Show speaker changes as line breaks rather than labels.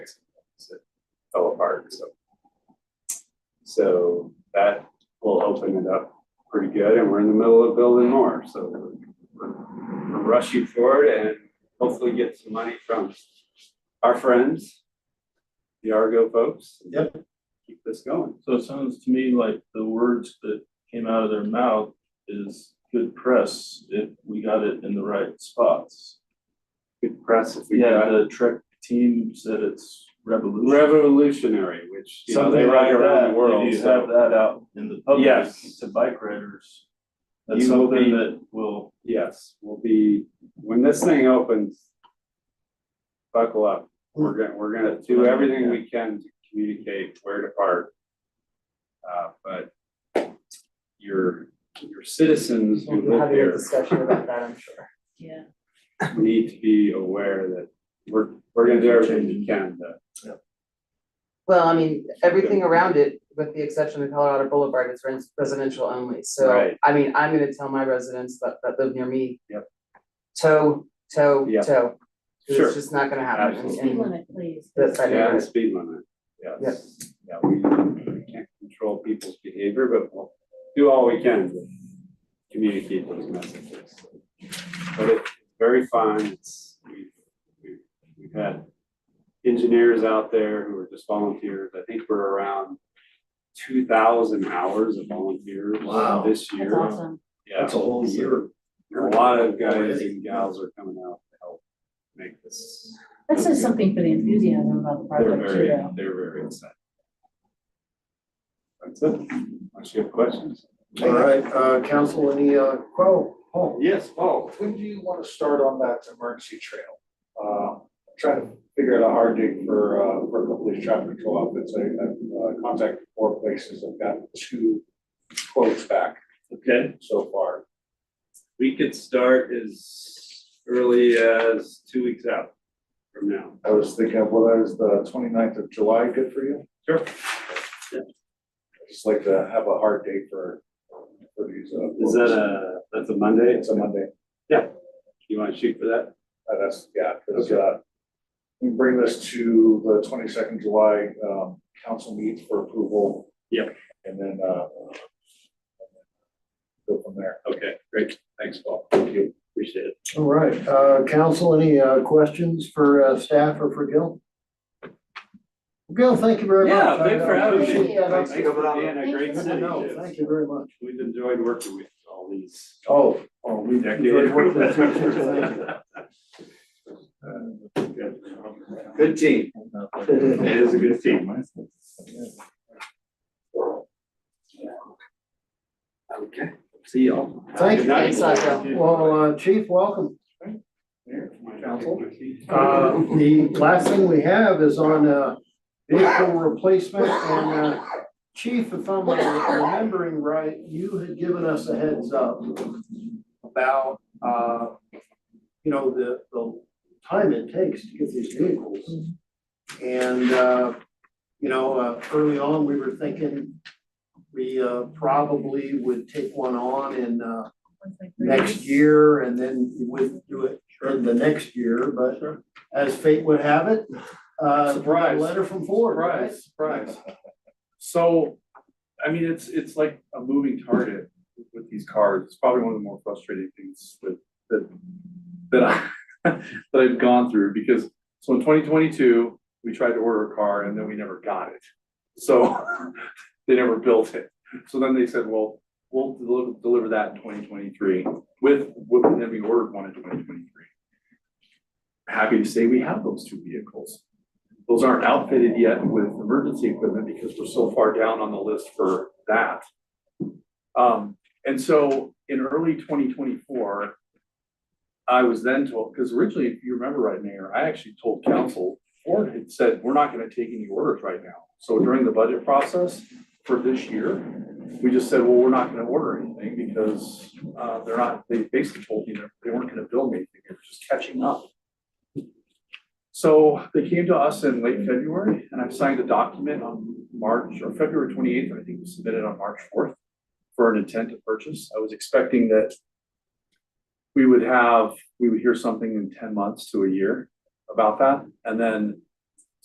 it fell apart, so. So that will open it up pretty good, and we're in the middle of building more, so we're- we're we're rushing forward and hopefully get some money from our friends, the Argo folks.
Yep.
Keep this going.
So it sounds to me like the words that came out of their mouth is good press if we got it in the right spots.
Good press if we
Yeah,
got
the Trek team said it's revolutionary.
revolutionary, which, you know, they
Something
ride
like
around the
that,
world.
if you
so-
have that out in the public
Yes.
to bike riders, that's
You will be-
something that will,
Yes, we'll be, when this thing opens, buckle up. We're gonna, we're gonna do everything we can to communicate where to park. Uh, but your, your citizens who
We'll
live
have a
there
discussion about that, I'm sure.
Yeah,
need to be aware that we're, we're gonna do everything we can to.
Well, I mean, everything around it, with the exception of Colorado Boulevard, is res- residential only, so,
Right.
I mean, I'm gonna tell my residents that that live near me.
Yep.
Toe, toe,
Yeah.
toe, 'cause
Sure.
it's just not gonna happen, and-
speed
and
limit, please.
that's how
Yeah,
do
the
it,
speed limit, yes. Yeah, we we can't control people's behavior, but we'll do all we can to communicate those messages. But it's very fun, it's, we, we, we've had engineers out there who are just volunteers, I think we're around two thousand hours of volunteers
Wow.
this year.
That's awesome.
Yeah.
That's a whole year.
A lot of guys and gals are coming out to help make this,
That says something for the enthusiasm about the
they're
project too,
very,
though.
they're very excited. That's it, unless you have questions.
All right, uh, council, any, uh, quo? Oh,
Yes, Paul.
when do you wanna start on that emergency trail? Uh, trying to figure out a hard date for, uh, for the police traffic control outfits, I, I've, uh, contacted four places, I've got two quotes back
Okay.
so far.
We could start as early as two weeks out from now.
I was thinking, well, that is the 29th of July, good for you?
Sure.
I just like to have a hard date for, for these, uh.
Is that a, that's a Monday?
It's a Monday.
You wanna shoot for that?
Uh, That's, yeah, because, uh, we bring this to the twenty-second July, um, council meet for approval.
Yep.
And then, uh, go from there.
Okay, great. Thanks, Paul.
Thank you.
Appreciate it.
All right, uh, council, any, uh, questions for, uh, staff or for Gil? Gil, thank you very much.
Yeah, thanks for
I
having me.
appreciate that.
Thanks for being a great
I
city.
know,
Yes.
Thank you very much.
We've enjoyed working with all these.
Oh, oh, we
executive
with you.
officers. Good team. It is a good team. Okay, see y'all.
Thank you.
Good night.
Thanks, Sasha.
Well, uh, chief, welcome.
Council.
Uh, the last thing we have is on, uh, vehicle replacement and, uh, chief, if I'm remembering right, you had given us a heads up about, uh, you know, the, the time it takes to get these vehicles. And, uh, you know, uh, early on, we were thinking we, uh, probably would take one on in, uh, next
Mhm.
year and then we wouldn't do it in the next year, but as fate would have it, uh, we got a
Surprise.
letter from Ford, right?
Surprise, surprise. So, I mean, it's, it's like a moving target with these cars. It's probably one of the more frustrating things with, that, that I, that I've gone through because, so in twenty twenty-two, we tried to order a car and then we never got it. So they never built it. So then they said, well, we'll deliver, deliver that in twenty twenty-three with, with, and then we ordered one in twenty twenty-three. Happy to say we have those two vehicles. Those aren't outfitted yet with emergency equipment because we're so far down on the list for that. Um, and so in early twenty twenty-four, I was then told, because originally, if you remember right, Mayor, I actually told council, Ford had said, we're not gonna take any orders right now. So during the budget process for this year, we just said, well, we're not gonna order anything because, uh, they're not, they basically told me that they weren't gonna build anything, they were just catching up. So they came to us in late February and I've signed a document on March or February twenty eighth, I think it was submitted on March fourth for an intent to purchase. I was expecting that we would have, we would hear something in ten months to a year about that. And then